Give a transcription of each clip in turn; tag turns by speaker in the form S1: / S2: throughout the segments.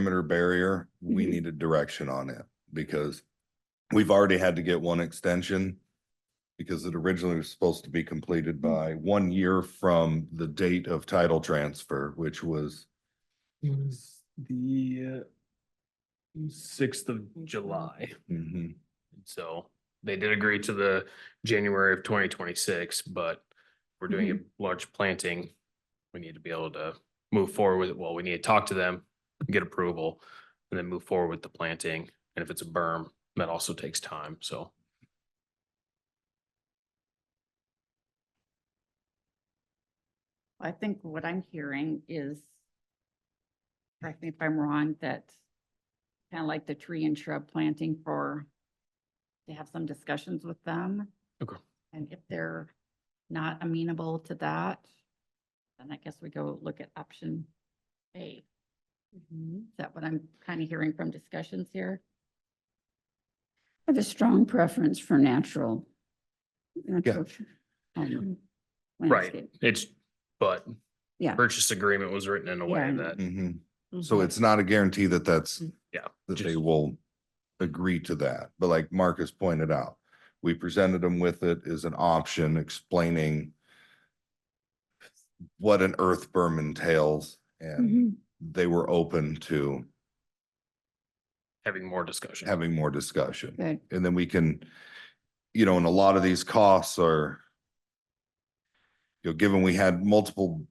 S1: perimeter barrier, we
S2: Mhm.
S1: needed direction on it because we've already had to get one extension because it originally was supposed to be completed by one year from the date of title transfer, which was
S3: was the uh, sixth of July.
S1: mhm,
S3: So they did agree to the January of twenty twenty-six, but we're doing
S4: Mm-hmm.
S3: a large planting. We need to be able to move forward with it. Well, we need to talk to them, get approval, and then move forward with the planting. And if it's a berm, that also takes time, so.
S5: I think what I'm hearing is, correct me if I'm wrong, that kind of like the tree and shrub planting for, to have some discussions with them.
S3: Okay.
S5: And if they're not amenable to that, then I guess we go look at option A. Is that what I'm kind of hearing from discussions here?
S4: I have a strong preference for natural. natural tr- um,
S3: Right,
S4: landscape.
S3: it's, but.
S4: Yeah.
S3: Purchase agreement was written in a way
S4: Yeah.
S3: that,
S1: mhm.
S5: Mm-hmm.
S1: So it's not a guarantee that that's.
S3: Yeah,
S1: That they
S3: just-
S1: will agree to that, but like Marcus pointed out, we presented them with it as an option explaining. What an earth berm entails
S5: Mm-hmm.
S1: and
S4: Mhm.
S1: they were open to
S3: having more discussion.
S1: having more discussion.
S4: Good.
S1: And then we can, you know, and a lot of these costs are. You know, given we had multiple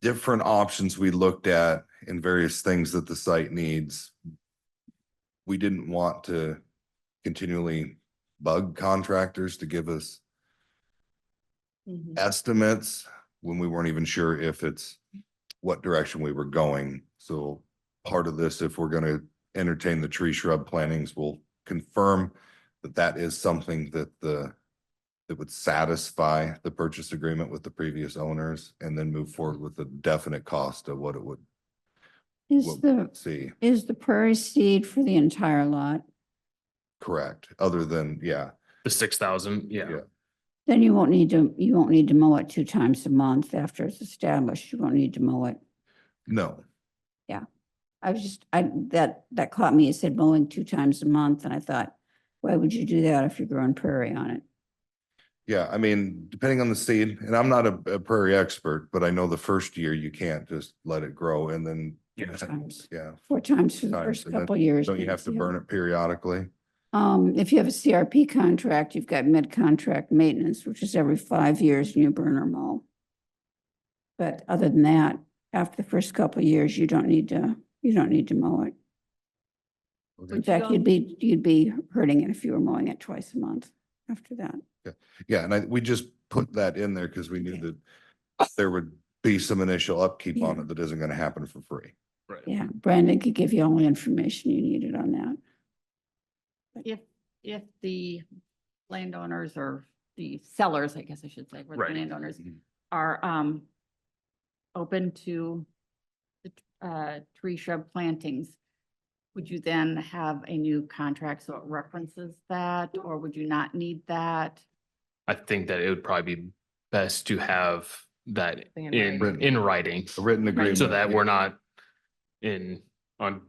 S1: different options we looked at and various things that the site needs. We didn't want to continually bug contractors to give us
S5: Mm-hmm.
S1: estimates when we weren't even sure if it's what direction we were going. So part of this, if we're gonna entertain the tree shrub plantings, we'll confirm that that is something that the that would satisfy the purchase agreement with the previous owners and then move forward with the definite cost of what it would
S4: Is
S1: what we
S4: the,
S1: would see.
S4: is the prairie seed for the entire lot?
S1: Correct. Other than, yeah,
S3: The six thousand, yeah.
S1: Yeah.
S4: Then you won't need to, you won't need to mow it two times a month after it's established. You won't need to mow it.
S1: no,
S4: I was just, I, that, that caught me. It said mowing two times a month and I thought, why would you do that if you're growing prairie on it?
S1: Yeah, I mean, depending on the seed, and I'm not a a prairie expert, but I know the first year you can't just let it grow and then.
S3: Yeah.
S4: Times.
S1: Yeah,
S4: Four times for the
S1: Times,
S4: first
S1: and then
S4: couple years.
S1: don't you have to
S4: Yeah.
S1: burn it periodically?
S4: Um, if you have a CRP contract, you've got mid-contract maintenance, which is every five years and you burn or mow. But other than that, after the first couple of years, you don't need to, you don't need to mow it. In
S5: Would you
S4: fact,
S5: go-
S4: you'd be, you'd be hurting it if you were mowing it twice a month after that.
S1: Yeah, and I, we just put that in there because we knew
S4: Okay.
S1: that there would be some initial upkeep on
S4: Yeah.
S1: it that isn't gonna happen for free.
S3: Right.
S4: Yeah, Brandon could give you all the information you needed on that.
S5: If, if the landowners or the sellers, I guess I should say, were the
S3: Right.
S5: landowners
S6: Mm-hmm.
S5: are um open to the t- uh tree shrub plantings, would you then have a new contract so it references that, or would you not need that?
S3: I think that it would probably be best to have that
S6: Thing in
S3: in,
S1: writing.
S3: in writing,
S1: A written agreement.
S3: so that we're not in, on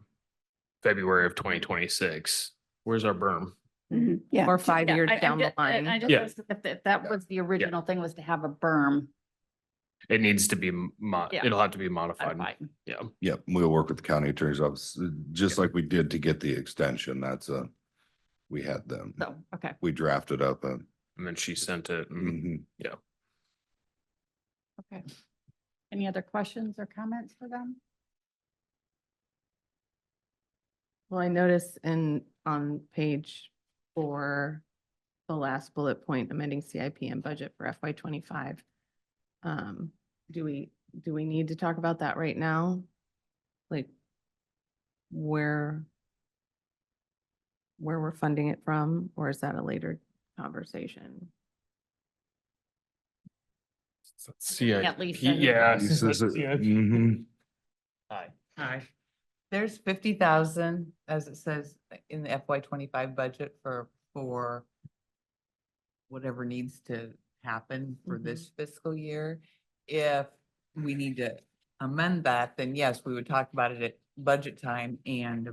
S3: February of twenty twenty-six. Where's our berm?
S4: Mhm, Yeah.
S6: Or five
S5: Yeah,
S6: years
S5: I- I'm
S6: down the
S5: ju- I- I
S6: line.
S5: just
S3: Yeah.
S5: was- If, if that was the original thing was to have a berm.
S3: It needs to be mo-
S5: Yeah.
S3: it'll have to be modified.
S5: modified.
S3: Yeah,
S1: Yep, we'll work with the county attorney's office, uh, just like we did to get the extension. That's a, we had them,
S5: So, okay,
S1: we drafted up a.
S3: and then she sent it. and-
S1: mhm.
S5: okay. Any other questions or comments for them?
S6: Well, I notice in, on page four, the last bullet point, amending CIP and budget for FY twenty-five. Um, do we, do we need to talk about that right now? Like, where, where we're funding it from, or is that a later conversation?
S5: At least. I-
S3: Yeah.
S1: He says it- mhm.
S7: Hi. There's fifty thousand, as it says, in the FY twenty-five budget for, for whatever needs to happen for this fiscal year. If we need to amend that, then yes, we would talk about it at budget time and